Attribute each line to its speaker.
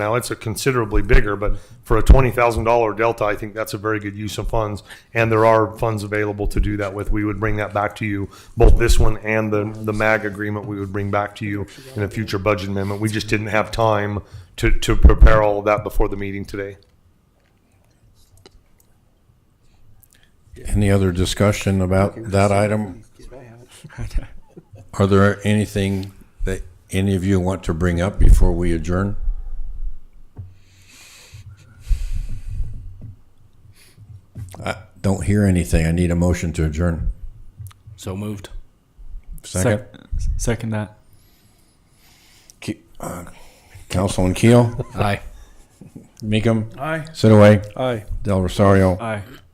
Speaker 1: Now, it's a considerably bigger, but for a twenty thousand dollar delta, I think that's a very good use of funds. And there are funds available to do that with. We would bring that back to you, both this one and the, the MAG agreement, we would bring back to you in a future budget amendment. We just didn't have time to, to prepare all of that before the meeting today.
Speaker 2: Any other discussion about that item? Are there anything that any of you want to bring up before we adjourn? I don't hear anything. I need a motion to adjourn.
Speaker 3: So moved.
Speaker 2: Second,
Speaker 4: Sec- second that.
Speaker 2: Ke- uh, Councilman Keel,
Speaker 3: Aye.
Speaker 2: Meekum,
Speaker 4: Aye.
Speaker 2: Sitaway,
Speaker 4: Aye.
Speaker 2: Del Rosario,
Speaker 4: Aye.